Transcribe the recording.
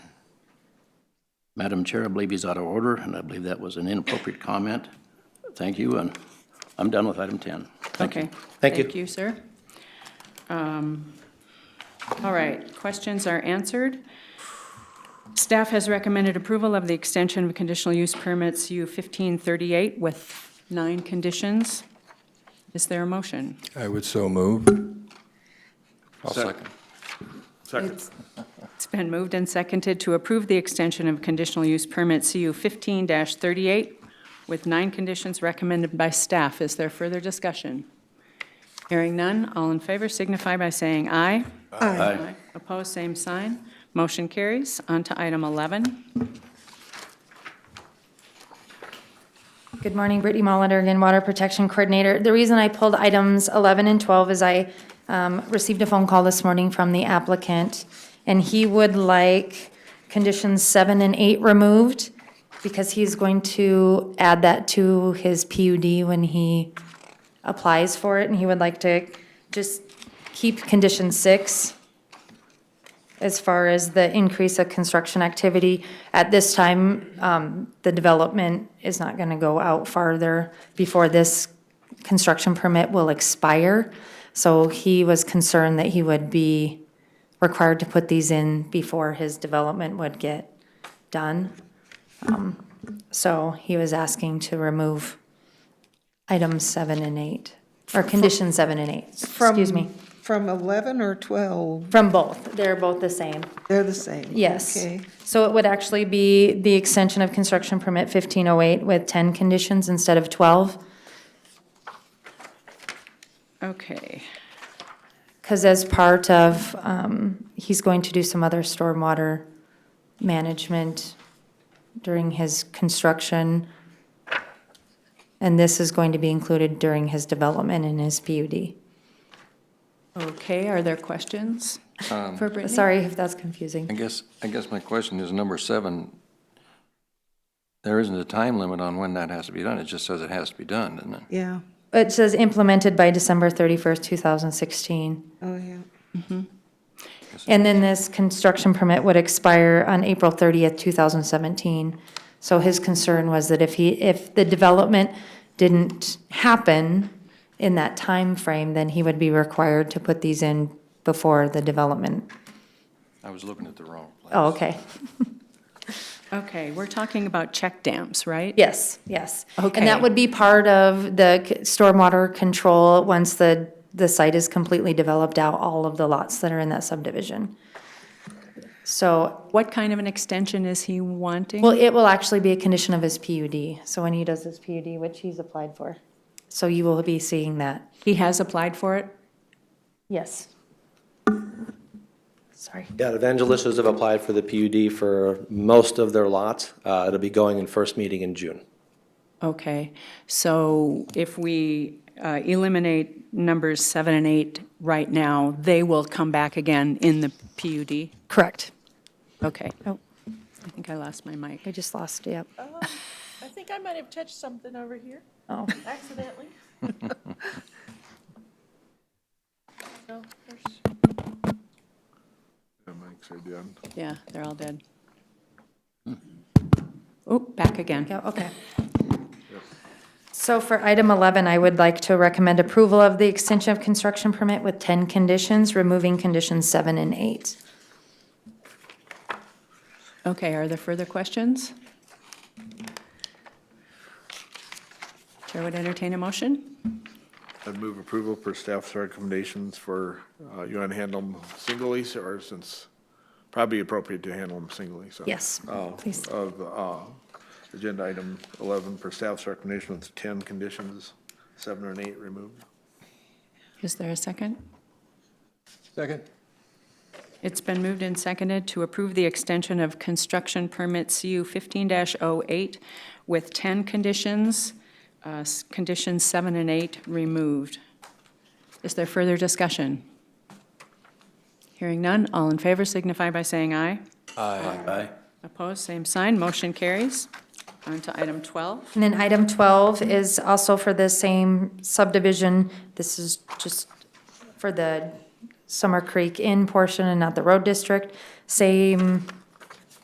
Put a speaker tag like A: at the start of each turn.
A: Madam Chair, I believe he's out of order, and I believe that was an inappropriate comment. Thank you, and I'm done with item 10. Thank you.
B: Okay.
C: Thank you.
B: Thank you, sir. Um, All right, questions are answered. Staff has recommended approval of the extension of conditional use permits U 1538 with nine conditions. Is there a motion?
D: I would so move.
E: I'll second. Second.
B: It's it's been moved and seconded to approve the extension of conditional use permit CU 15-38 with nine conditions recommended by staff. Is there further discussion? Hearing none, all in favor signify by saying aye.
A: Aye.
B: Opposed, same sign. Motion carries. On to item 11.
F: Good morning, Brittany Molitor again, Water Protection Coordinator. The reason I pulled items 11 and 12 is I um, received a phone call this morning from the applicant, and he would like conditions seven and eight removed because he's going to add that to his PUD when he applies for it, and he would like to just keep condition six as far as the increase of construction activity. At this time, um, the development is not going to go out farther before this construction permit will expire. So he was concerned that he would be required to put these in before his development would get done. Um, So he was asking to remove items seven and eight, or condition seven and eight, excuse me,
G: From 11 or 12,
F: from both. They're both the same.
G: they're the same?
F: Yes.
G: Okay,
F: So it would actually be the extension of construction permit 1508 with 10 conditions instead of 12?
B: Okay.
F: Because as part of, um, he's going to do some other stormwater management during his construction, and this is going to be included during his development in his PUD.
B: Okay, are there questions for Brittany?
F: Sorry if that's
E: I
F: confusing.
E: guess, I guess my question is number seven, there isn't a time limit on when that has to be done. It just says it has to be done, doesn't it?
G: yeah,
F: It says implemented by December 31st, 2016.
G: oh, yeah.
F: And then this construction permit would expire on April 30th, 2017. So his concern was that if he, if the development didn't happen in that time frame, then he would be required to put these in before the development.
E: I was looking at the wrong place.
F: Oh, okay.
B: Okay, we're talking about check dams, right?
F: Yes, yes. And
B: Okay.
F: that would be part of the c- stormwater control, once the, the site is completely developed out, all of the lots that are in that subdivision. So
B: What kind of an extension is he wanting?
F: Well, it will actually be a condition of his PUD, so when he does his PUD, which he's applied for. So you will be seeing that.
B: He has applied for it?
F: Yes. Sorry.
C: Yeah, the Evangelistas have applied for the PUD for most of their lots. Uh, It'll be going in first meeting in June.
B: Okay, so if we uh, eliminate numbers seven and eight right now, they will come back again in the PUD?
F: Correct.
B: Okay.
F: Oh.
B: I think I lost my mic.
F: I just lost, yep.
H: I think I might have touched something over here
F: Oh,
H: accidentally. No, there's-
B: Yeah, they're all dead. Hmm. Oh, back again.
F: yeah, okay. So for item 11, I would like to recommend approval of the extension of construction permit with 10 conditions, removing conditions seven and eight.
B: Okay, are there further questions? Chair would entertain a motion?
I: I'd move approval for staff's recommendations for, uh, you want to handle them singly, or since, probably appropriate to handle them singly, so.
F: Yes,
I: Uh,
F: please.
I: Of, uh, agenda item 11 for staff's recommendation with 10 conditions, seven and eight removed.
B: Is there a second?
E: Second.
B: It's been moved and seconded to approve the extension of construction permit CU 15-08 with 10 conditions, uh, s- conditions seven and eight removed. Is there further discussion? Hearing none, all in favor signify by saying aye.
A: Aye.
B: Opposed, same sign, motion carries. On to item 12.
F: And then item 12 is also for the same subdivision. This is just for the Summer Creek Inn portion and not the road district. Same